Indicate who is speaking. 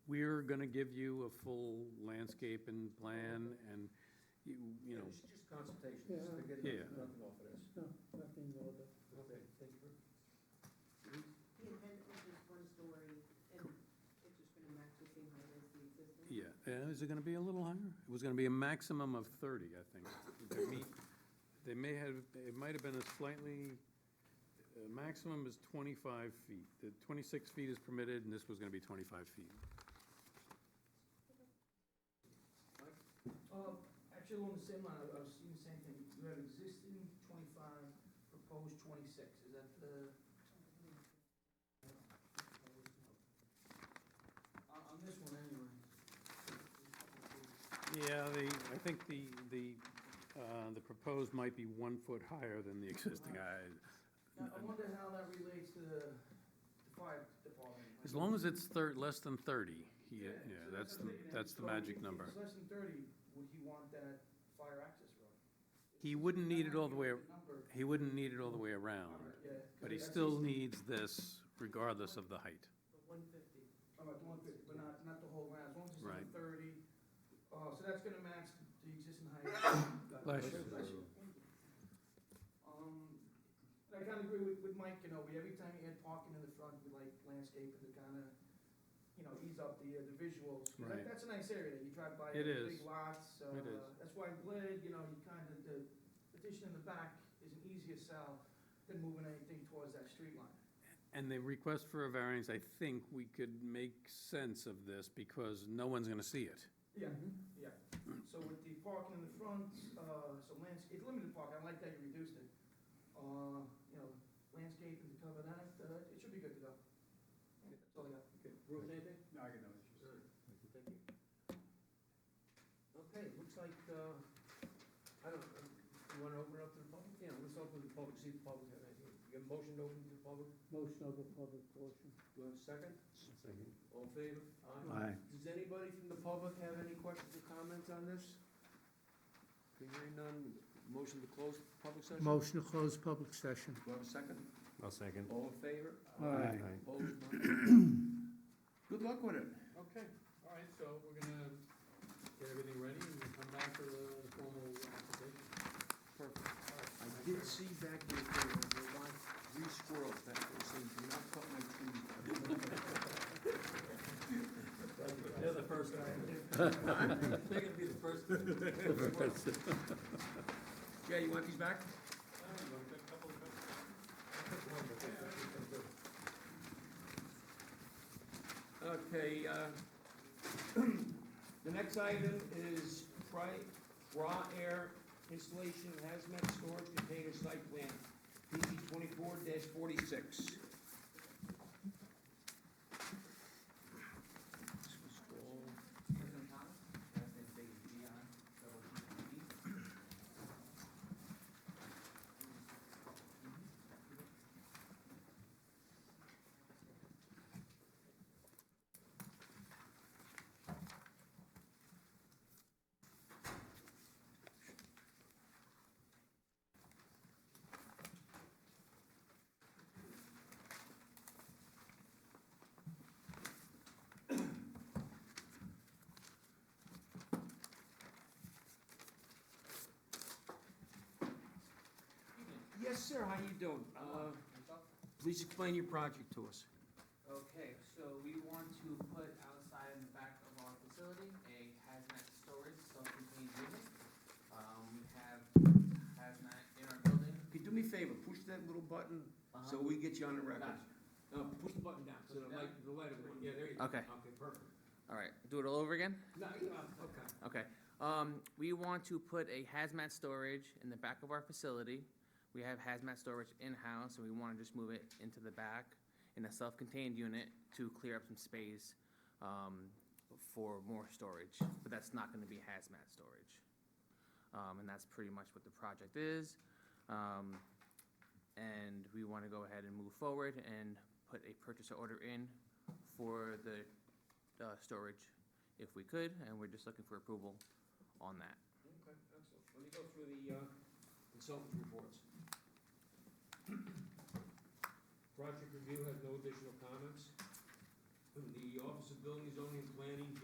Speaker 1: we're gonna give you a full landscape and plan and, you, you know,
Speaker 2: It's just consultation, this is to get
Speaker 1: Yeah.
Speaker 2: nothing nothing off of this.
Speaker 3: No, nothing more than.
Speaker 2: Okay, thank you.
Speaker 4: The event was just one story, and it's just gonna match the same height as the existing.
Speaker 1: yeah. Uh, Is it gonna be a little higher? It was gonna be a maximum of thirty, I think. They meet- They may have, it might have been a slightly, uh, maximum is twenty-five feet. The twenty-six feet is permitted and this was gonna be twenty-five feet.
Speaker 5: Uh, actually, along the same line, I I was seeing the same thing, you have existing twenty-five, proposed twenty-six, is that the? On, on this one anyway.
Speaker 1: Yeah, the, I think the, the, uh, the proposed might be one foot higher than the existing. I-
Speaker 5: Now, I wonder how that relates to the the fire department.
Speaker 1: As long as it's thir, less than thirty, he- yeah,
Speaker 5: so
Speaker 1: that's,
Speaker 5: what I'm
Speaker 1: the
Speaker 5: thinking.
Speaker 1: that's the
Speaker 5: So
Speaker 1: magic
Speaker 5: if
Speaker 1: number.
Speaker 5: it's less than thirty, would he want that fire access road?
Speaker 1: He wouldn't need it all the way,
Speaker 5: That might be the number.
Speaker 1: he wouldn't need it all the way around,
Speaker 5: Yeah, 'cause
Speaker 1: Um, but he
Speaker 5: that's
Speaker 1: still
Speaker 5: just-
Speaker 1: needs this regardless of the height.
Speaker 4: But one fifty.
Speaker 5: All right, the one fifty, but not, not the whole round, as long as it's
Speaker 1: Right.
Speaker 5: on thirty, uh, so that's gonna match the existing height.
Speaker 1: Bless you.
Speaker 5: Um, and I kinda agree with, with Mike, you know, we, every time you add parking in the front, we like landscaping to kinda, you know, ease up the, uh, the visuals. 'Cause that-
Speaker 1: Right.
Speaker 5: That's a nice area, you drive by,
Speaker 1: It
Speaker 5: the
Speaker 1: is.
Speaker 5: big lots, uh,
Speaker 1: It is.
Speaker 5: that's why I'm glad, you know, you kinda, the addition in the back is an easier sell than moving anything towards that street line.
Speaker 1: And the request for a variance, I think we could make sense of this because no one's gonna see it.
Speaker 5: Yeah,
Speaker 2: Mm-hmm.
Speaker 5: yeah. So with the parking in the front, uh, so landscape, limited parking, I like that you reduced it. Uh, you know, landscaping to cover that, uh, it should be good to go. That's all I got.
Speaker 2: Ruth, anything? No, I got no issues. Thank you. Okay, looks like, uh, I don't, uh, you wanna open it up to the public? Yeah, let's open the public, see if the public have anything. You got a motion to open to the public?
Speaker 3: Motion of the public portion.
Speaker 2: Do I have a second? All in favor?
Speaker 1: Aye.
Speaker 2: Does anybody from the public have any questions or comments on this? Hearing none, motion to close the public session?
Speaker 3: Motion to close public session.
Speaker 2: Do I have a second?
Speaker 6: I'll second.
Speaker 2: All in favor?
Speaker 3: Aye.
Speaker 2: Opposed? Good luck with it.
Speaker 7: Okay, all right, so we're gonna get everything ready and we'll come back for the formal application.
Speaker 2: Perfect. I did see back in the day, there were like three squirrels back there saying, do not cut my tree.
Speaker 7: They're the first guy. They're gonna be the first.
Speaker 2: Yeah, you want these back? Okay, uh, the next item is pri- raw air installation of hazmat storage container site plan, PB twenty-four forty-six. Yes, sir, how you doing? Uh, Please explain your project to us.
Speaker 8: Okay, so we want to put outside in the back of our facility a hazmat storage self-contained unit. Um, we have hazmat in our building.
Speaker 2: Okay, do me a favor, push that little button so
Speaker 8: Uh-huh.
Speaker 2: we get you on the record.
Speaker 8: Gotcha.
Speaker 2: No, push the button down, so the light, the light will, yeah, there you go.
Speaker 8: Okay.
Speaker 2: Okay, perfect.
Speaker 8: All right, do it all over again?
Speaker 2: No, you are- okay.
Speaker 8: Okay, um, we want to put a hazmat storage in the back of our facility. We have hazmat storage in-house, and we wanna just move it into the back in a self-contained unit to clear up some space, um, for more storage, but that's not gonna be hazmat storage. Um, and that's pretty much what the project is. Um, and we wanna go ahead and move forward and put a purchase order in for the, uh, storage if we could, and we're just looking for approval on that.
Speaker 2: Okay, excellent. Let me go through the uh, consultant reports.
Speaker 7: Project review has no additional comments. The Office of Building, Zoning and Planning